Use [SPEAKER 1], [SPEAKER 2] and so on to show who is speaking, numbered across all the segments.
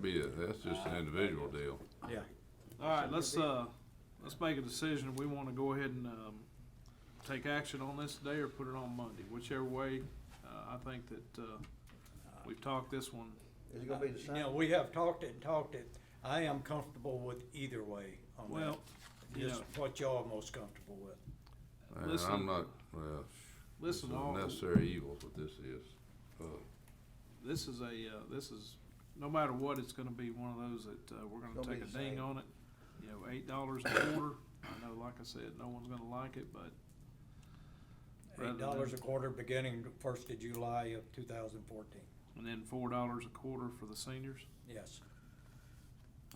[SPEAKER 1] be it. That's just an individual deal.
[SPEAKER 2] Yeah.
[SPEAKER 3] All right, let's, uh, let's make a decision. We want to go ahead and, um, take action on this today or put it on Monday, whichever way. Uh, I think that, uh, we've talked this one.
[SPEAKER 2] Is it gonna be the
[SPEAKER 4] You know,
[SPEAKER 2] same?
[SPEAKER 4] Uh, we have talked it and talked it. I am comfortable with either way on that.
[SPEAKER 3] Well, you
[SPEAKER 4] Just
[SPEAKER 3] know.
[SPEAKER 4] what y'all are most comfortable with.
[SPEAKER 1] And
[SPEAKER 3] Listen.
[SPEAKER 1] I'm not, well, this is
[SPEAKER 3] Listen, all,
[SPEAKER 1] necessary evils, what this is. Uh,
[SPEAKER 3] this is a, uh, this is, no matter what, it's gonna be one of those that, uh, we're
[SPEAKER 2] It's
[SPEAKER 3] gonna
[SPEAKER 2] gonna
[SPEAKER 3] take
[SPEAKER 2] be
[SPEAKER 3] a
[SPEAKER 2] the
[SPEAKER 3] ding
[SPEAKER 2] same.
[SPEAKER 3] on it. You know, eight dollars a quarter. I know, like I said, no one's gonna like it, but Rather
[SPEAKER 4] Eight dollars a
[SPEAKER 3] than-
[SPEAKER 4] quarter beginning first of July of two thousand fourteen,
[SPEAKER 3] And then four dollars a quarter for the seniors?
[SPEAKER 4] yes.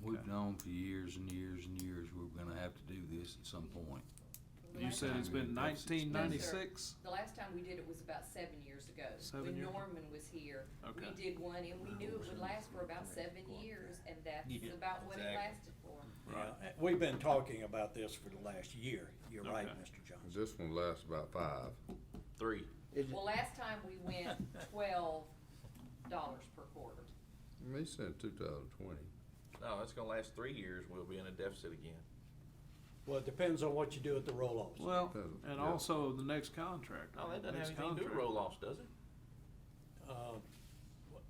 [SPEAKER 5] We've known for years and years and years we're gonna have to do this at some point.
[SPEAKER 3] You said it's been
[SPEAKER 5] That's
[SPEAKER 3] nineteen ninety-six?
[SPEAKER 6] The last time we did it was about seven years ago.
[SPEAKER 3] Seven years?
[SPEAKER 6] When Norman was here.
[SPEAKER 3] Okay.
[SPEAKER 6] We did one and we knew it would last for about seven years and that's
[SPEAKER 4] Yeah,
[SPEAKER 6] about what it lasted for.
[SPEAKER 3] Right.
[SPEAKER 4] Yeah, Uh, We've been talking about this for the last year. You're right,
[SPEAKER 3] Okay.
[SPEAKER 4] Mr. Johnson.
[SPEAKER 1] This one lasts about five.
[SPEAKER 7] Three.
[SPEAKER 2] Is it,
[SPEAKER 6] Well, last time we went twelve dollars per quarter.
[SPEAKER 1] They said two thousand twenty.
[SPEAKER 7] No, it's gonna last three years. We'll be in a deficit again.
[SPEAKER 4] Well, it depends on what you do at the roll-offs.
[SPEAKER 3] Well,
[SPEAKER 1] Doesn't-
[SPEAKER 3] and
[SPEAKER 1] yeah.
[SPEAKER 3] also the next contract.
[SPEAKER 7] No, Oh, that doesn't
[SPEAKER 3] Next
[SPEAKER 7] have anything to do with
[SPEAKER 3] contract.
[SPEAKER 7] roll-offs, does it?
[SPEAKER 4] Uh,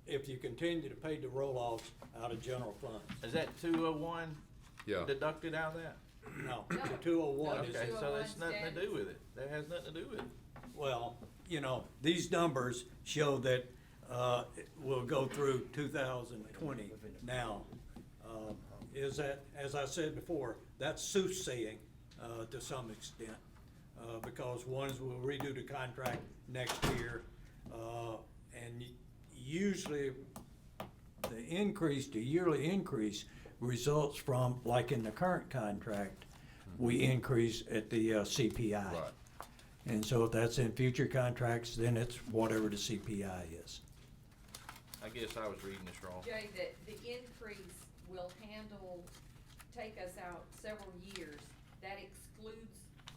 [SPEAKER 4] If you continue to pay the roll-offs out of general funds,
[SPEAKER 7] Is that two oh one
[SPEAKER 1] Yeah,
[SPEAKER 7] deducted out of that?
[SPEAKER 4] no,
[SPEAKER 6] No.
[SPEAKER 4] the two oh one is
[SPEAKER 7] Okay, so
[SPEAKER 6] 201
[SPEAKER 7] that's nothing to
[SPEAKER 6] stands.
[SPEAKER 7] do with it. That has nothing to do with it.
[SPEAKER 4] Well, you know, these numbers show that uh, it will go through 2020 now. Um, Is that, as I said before, that's soothsaying uh, to some extent, uh, because ones will redo the contract next year. uh, And y- usually, the increase, the yearly increase results from, like in the current contract, we increase at the uh, CPI.
[SPEAKER 1] Right.
[SPEAKER 4] And so if that's in future contracts, then it's whatever the CPI is.
[SPEAKER 7] I guess I was reading this wrong.
[SPEAKER 6] Jay, that the increase will handle, take us out several years. That excludes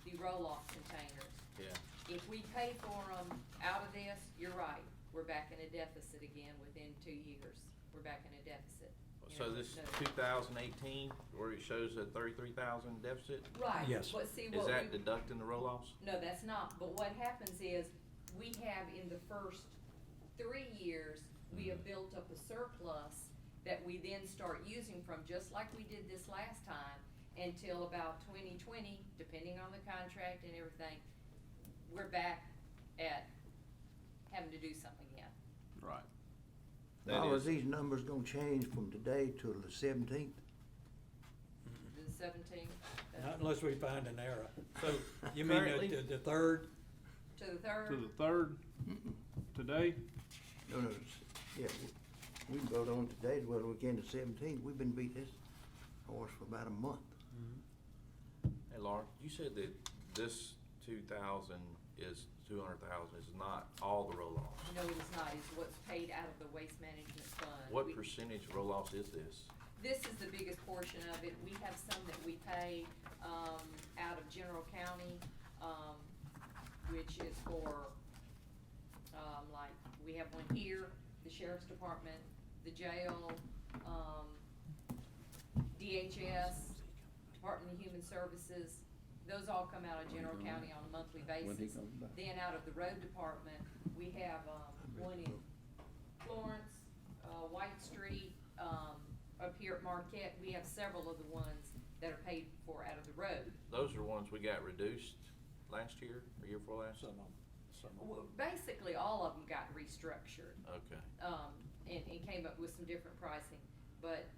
[SPEAKER 6] the roll-off containers.
[SPEAKER 7] Yeah.
[SPEAKER 6] If we pay for them out of this, you're right, we're back in a deficit again within two years. We're back in a deficit. you
[SPEAKER 7] So
[SPEAKER 6] know,
[SPEAKER 7] this two thousand eighteen, where it shows a thirty-three thousand deficit,
[SPEAKER 6] Right,
[SPEAKER 4] Yes.
[SPEAKER 6] but see
[SPEAKER 7] is
[SPEAKER 6] what
[SPEAKER 7] that
[SPEAKER 6] we,
[SPEAKER 7] deducting the roll-offs?
[SPEAKER 6] no, that's not, but what happens is, we have in the first three years, we
[SPEAKER 7] Mm-hmm.
[SPEAKER 6] have built up a surplus that we then start using from, just like we did this last time, until about twenty twenty, depending on the contract and everything, we're back at having to do something again.
[SPEAKER 3] Right.
[SPEAKER 7] That
[SPEAKER 2] now, is
[SPEAKER 7] is-
[SPEAKER 2] these numbers gonna change from today till the seventeenth?
[SPEAKER 7] Mm-hmm.
[SPEAKER 6] The seventeen,
[SPEAKER 4] Not unless we find an error.
[SPEAKER 7] So
[SPEAKER 4] You mean
[SPEAKER 7] currently-
[SPEAKER 4] the, the third?
[SPEAKER 6] to the third.
[SPEAKER 3] To the third, today,
[SPEAKER 2] No, no, it's- yeah, we- we can vote on today as well as we can the seventeenth. We've been beating this horse for about a month.
[SPEAKER 7] Hey, Laura, you said that this two thousand is two hundred thousand is not all the roll-offs.
[SPEAKER 6] No, it is not, it's what's paid out of the waste management fund. We-
[SPEAKER 7] What percentage roll-offs is this?
[SPEAKER 6] This is the biggest portion of it, we have some that we pay, um, out of general county, um, which is for, um, like, we have one here, the sheriff's department, the jail, um, DHS, Department of Human Services, those all come out of general county on a monthly basis. Then out of the road department, we have, um, one in Florence, uh, White Street, um, up here at Marquette, we have several of the ones that are paid for out of the road.
[SPEAKER 7] Those are ones we got reduced last year, or year before last?
[SPEAKER 4] Some of them, some of them.
[SPEAKER 6] W- Basically, all of them got restructured,
[SPEAKER 7] Okay.
[SPEAKER 6] um, and, and came up with some different pricing, but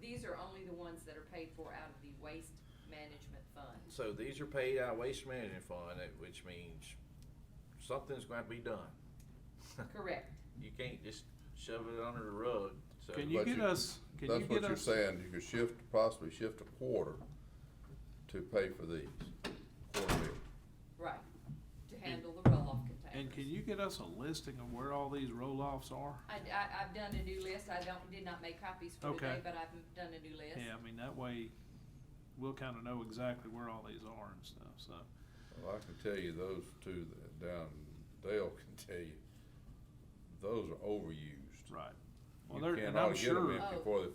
[SPEAKER 6] these are only the ones that are paid for out of the waste management fund.
[SPEAKER 7] So these are paid out of waste management fund, eh, which means something's gonna have to be done.
[SPEAKER 6] Correct,
[SPEAKER 7] You can't just shove it under the rug, so.
[SPEAKER 3] can you
[SPEAKER 1] But
[SPEAKER 3] get
[SPEAKER 1] you-
[SPEAKER 3] us, can you
[SPEAKER 1] that's what
[SPEAKER 3] get
[SPEAKER 1] you're
[SPEAKER 3] us?
[SPEAKER 1] saying. You could shift, possibly shift a quarter to pay for these. Quarterly.
[SPEAKER 6] right, to handle the roll-off containers.
[SPEAKER 3] And can you get us a listing of where all these roll-offs are?
[SPEAKER 6] I, I, have done a new list, I don't, did not make copies for today,
[SPEAKER 3] Okay.
[SPEAKER 6] but I've done a new list.
[SPEAKER 3] Yeah, I mean, that way, we'll kinda know exactly where all these are and stuff, so.
[SPEAKER 1] Well, I can tell you those two that down, Dale can tell you, those are overused.
[SPEAKER 3] Right. Well,
[SPEAKER 1] You
[SPEAKER 3] they're-
[SPEAKER 1] can't
[SPEAKER 3] and I'm
[SPEAKER 1] ought to get 'em
[SPEAKER 3] sure-
[SPEAKER 1] in before the